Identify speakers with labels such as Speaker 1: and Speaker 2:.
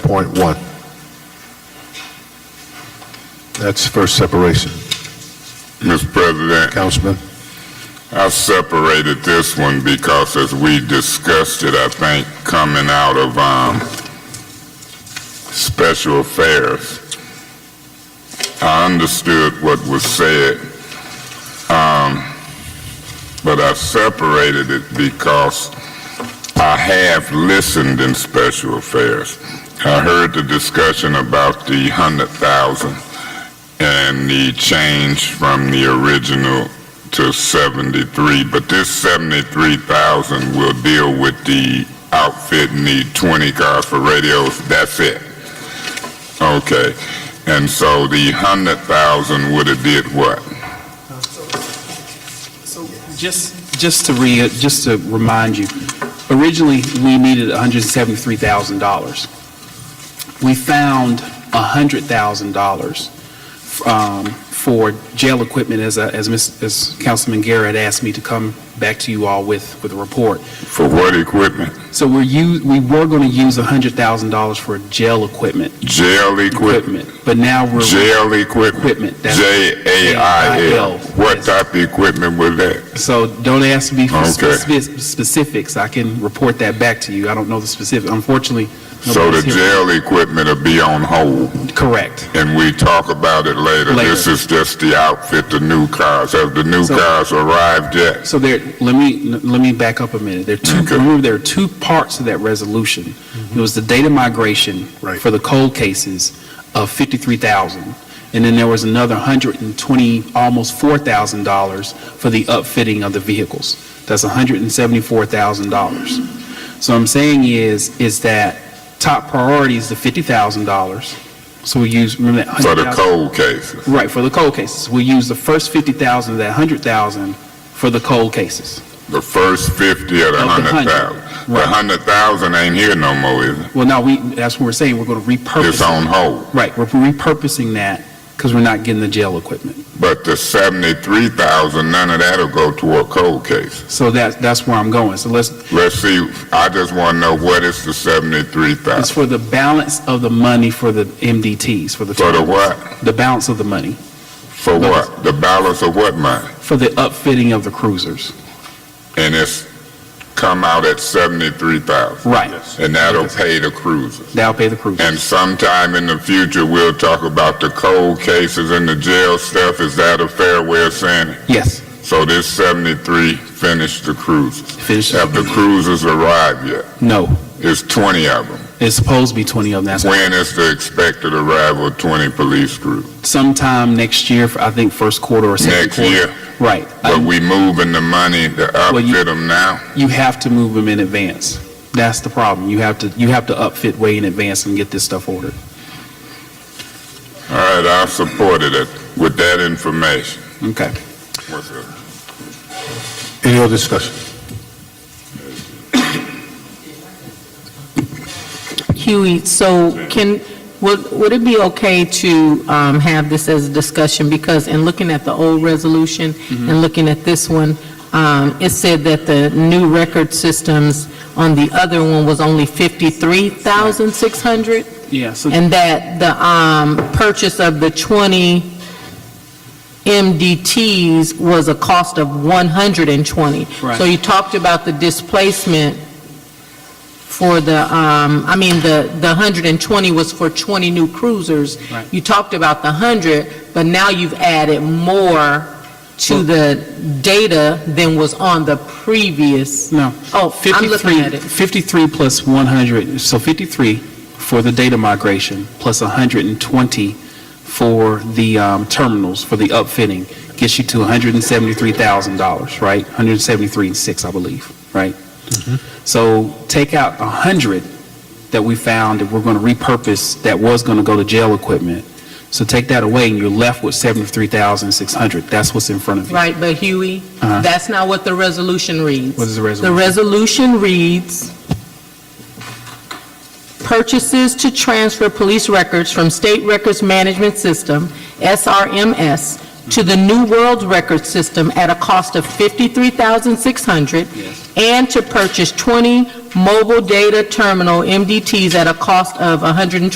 Speaker 1: 1.1. That's first separation.
Speaker 2: Mr. President,
Speaker 1: Councilman?
Speaker 2: I separated this one because as we discussed it, I think, coming out of, um, special affairs, I understood what was said, um, but I separated it because I have listened in special affairs. I heard the discussion about the hundred thousand and the change from the original to 73, but this 73,000 will deal with the outfit and the 20 cars for radios, that's it. Okay, and so the 100,000 would have did what?
Speaker 3: Just, just to re, just to remind you, originally, we needed $173,000. We found $100,000 um, for jail equipment, as, I- as Ms., as Councilman Garrett asked me to come back to you all with, with a report.
Speaker 2: For what equipment?
Speaker 3: So we're u, we were going to use $100,000 for jail equipment,
Speaker 2: Jail equipment?
Speaker 3: equipment, but now we're.
Speaker 2: Jail equipment?
Speaker 3: Equipment. that's-
Speaker 2: J-A-I-L. What
Speaker 3: Yes.
Speaker 2: type of equipment was that?
Speaker 3: So don't ask me for
Speaker 2: Okay.
Speaker 3: speci- specifics. I can report that back to you. I don't know the specific, unfortunately.
Speaker 2: So the
Speaker 3: nobody's here.
Speaker 2: jail equipment will be on hold,
Speaker 3: Correct.
Speaker 2: and we talk about it later.
Speaker 3: Later.
Speaker 2: This is just the outfit, the new cars. Have the new
Speaker 3: So-
Speaker 2: cars arrived yet?
Speaker 3: So there, let me, let me back up a minute. There are two,
Speaker 2: Okay. Mm-hmm.
Speaker 3: remember, there are two parts to that resolution. It was the data migration
Speaker 1: Right.
Speaker 3: for the cold cases of 53,000. And then there was another 120, almost $4,000 for the upfitting of the vehicles. That's $174,000. So I'm saying is, is that top priority is the $50,000. So we use, remember that?
Speaker 2: For the
Speaker 3: $100,000
Speaker 2: cold cases.
Speaker 3: Right, for the cold cases. We use the first 50,000 of that 100,000 for the cold cases.
Speaker 2: The first 50 or the
Speaker 3: Of the
Speaker 2: 100,000. The
Speaker 3: Right.
Speaker 2: 100,000 ain't here no more, is it?
Speaker 3: Well, now, we, that's what we're saying, we're going to repurpose.
Speaker 2: It's on hold.
Speaker 3: Right, we're repurposing that because we're not getting the jail equipment.
Speaker 2: But the 73,000, none of that'll go toward cold cases.
Speaker 3: So that's, that's where I'm going. So let's,
Speaker 2: Let's see, I just want to know what is the
Speaker 3: it's
Speaker 2: 73,000?
Speaker 3: for the balance of the money for the MDTs, for the.
Speaker 2: For the what?
Speaker 3: The balance of the money,
Speaker 2: For what? The balance of what money?
Speaker 3: for the upfitting of the cruisers.
Speaker 2: And it's come out at 73,000.
Speaker 3: Right.
Speaker 2: And that'll pay the cruiser.
Speaker 3: That'll pay the
Speaker 2: And
Speaker 3: cruisers.
Speaker 2: sometime in the future, we'll talk about the cold cases and the jail stuff. Is that a fair way of saying it?
Speaker 3: Yes,
Speaker 2: So this 73 finished the cruisers.
Speaker 3: finish.
Speaker 2: Have the cruisers arrived yet?
Speaker 3: No,
Speaker 2: It's 20 of them.
Speaker 3: it's supposed to be 20 of them. That's
Speaker 2: When is the expected arrival of 20 police crews?
Speaker 3: sometime next year, I think first quarter or second
Speaker 2: Next
Speaker 3: quarter.
Speaker 2: year?
Speaker 3: Right.
Speaker 2: But we moving the money to
Speaker 3: Um, you-
Speaker 2: outfit them now?
Speaker 3: you have to move them in advance. That's the problem. You have to, you have to upfit way in advance and get this stuff ordered.
Speaker 2: All right, I supported it with that information.
Speaker 3: Okay.
Speaker 2: What's up?
Speaker 1: Any other discussion?
Speaker 4: Huey, so can, would, would it be okay to um, have this as a discussion? Because in looking at the old resolution and looking at this one, um, it said that the new record systems on the other one was only 53,600?
Speaker 3: Yeah, so
Speaker 4: And that the um, purchase of the 20 MDTs was a cost of 120.
Speaker 3: Right.
Speaker 4: So you talked about the displacement for the, um, I mean, the, the 120 was for 20 new cruisers.
Speaker 3: Right.
Speaker 4: You talked about the 100, but now you've added more to
Speaker 3: Well-
Speaker 4: the data than was on the previous.
Speaker 3: No.
Speaker 4: Oh, I'm looking
Speaker 3: 53,
Speaker 4: at it.
Speaker 3: 53 plus 100, so 53 for the data migration, plus 120 for the um, terminals, for the upfitting, gets you to $173,000, right? 173 and 6, I believe, right? Mm-hmm. So take out 100 that we found that we're going to repurpose, that was going to go to jail equipment. So take that away, and you're left with 73,600. That's what's in front of you.
Speaker 4: Right, but Huey,
Speaker 3: Uh-huh.
Speaker 4: that's not what the resolution reads.
Speaker 3: What is the
Speaker 4: The
Speaker 3: resolution?
Speaker 4: resolution reads, "Purchases to transfer police records from State Records Management System, SRMS, to the new world record system at a cost of $53,600
Speaker 3: Yes.
Speaker 4: and to purchase 20 mobile data terminal MDTs at a cost of 120.